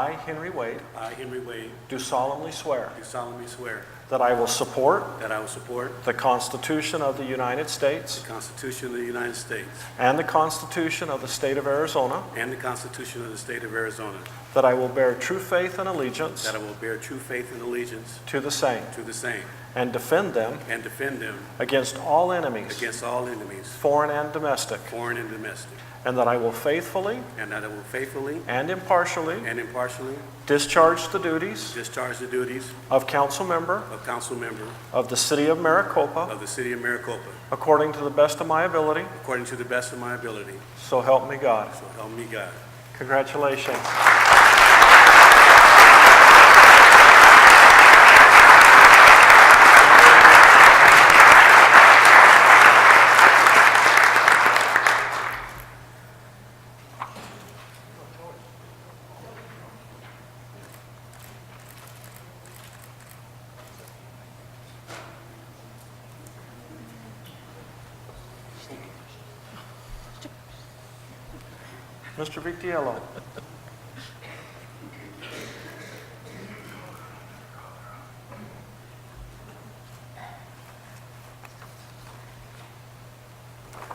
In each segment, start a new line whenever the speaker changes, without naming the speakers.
I, Henry Wade,
I, Henry Wade,
do solemnly swear
do solemnly swear
that I will support
that I will support
the Constitution of the United
the
States
Constitution of the United States
and the Constitution of the State of Arizona,
and the Constitution of the State of Arizona,
that I will bear true faith and allegiance
that I will bear true faith and allegiance
to the same,
to the same,
and defend them
and defend them
against all enemies,
against all enemies,
foreign and domestic,
foreign and domestic,
and that I will faithfully
and that I will faithfully
and impartially
and impartially
discharge the duties
discharge the duties
of council member
of council member
of the City of Maricopa
of the City of Maricopa
according to the best of my ability,
according to the best of my ability,
so help me God.
so help me God.
Congratulations. Mr. Vitiello.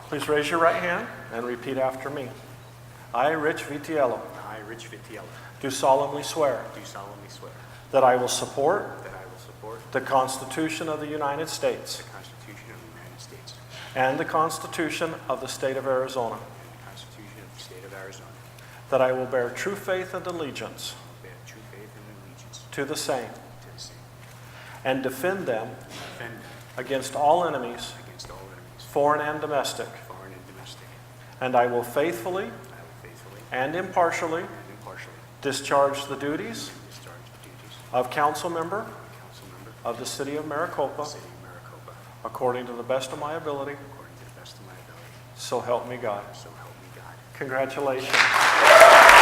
Please raise your right hand and repeat after me. I, Rich Vitiello,
I, Rich Vitiello,
do solemnly swear
do solemnly swear
that I will support
that I will support
the Constitution of the United States
the Constitution of the United States
and the Constitution of the State of Arizona,
and the Constitution of the State of Arizona,
that I will bear true faith and allegiance
and bear true faith and allegiance
to the same,
to the same,
and defend them
and defend them
against all enemies,
against all enemies,
foreign and domestic,
foreign and domestic.
and I will faithfully
I will faithfully
and impartially
and impartially
discharge the duties
discharge the duties
of council member
of council member of
of the City of
the
Maricopa
City of Maricopa
according to the best of my ability,
according to the best of my ability,
so help me God.
so help me God.
Congratulations.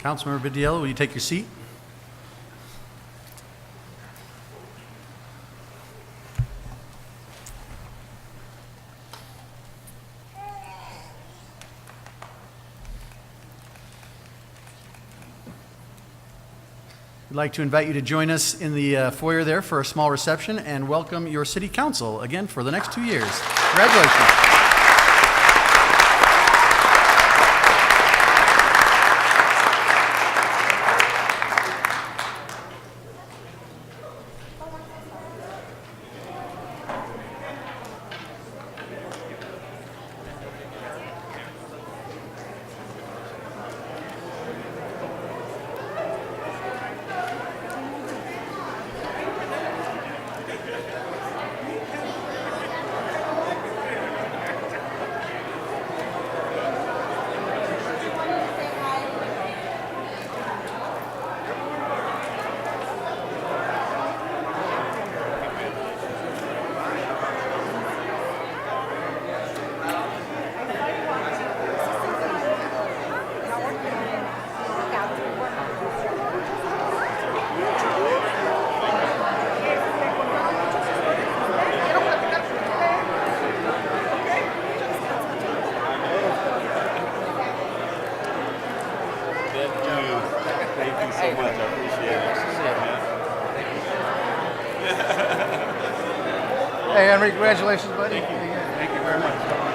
Councilmember Vidiello, will you take your seat? We'd like to invite you to join us in the uh, foyer there for a small reception and welcome your city council again for the next two years. Congratulations.
Thank you. Thank you so much. I appreciate it.
Hey, Henry, congratulations, buddy.
Thank you. Thank you very much.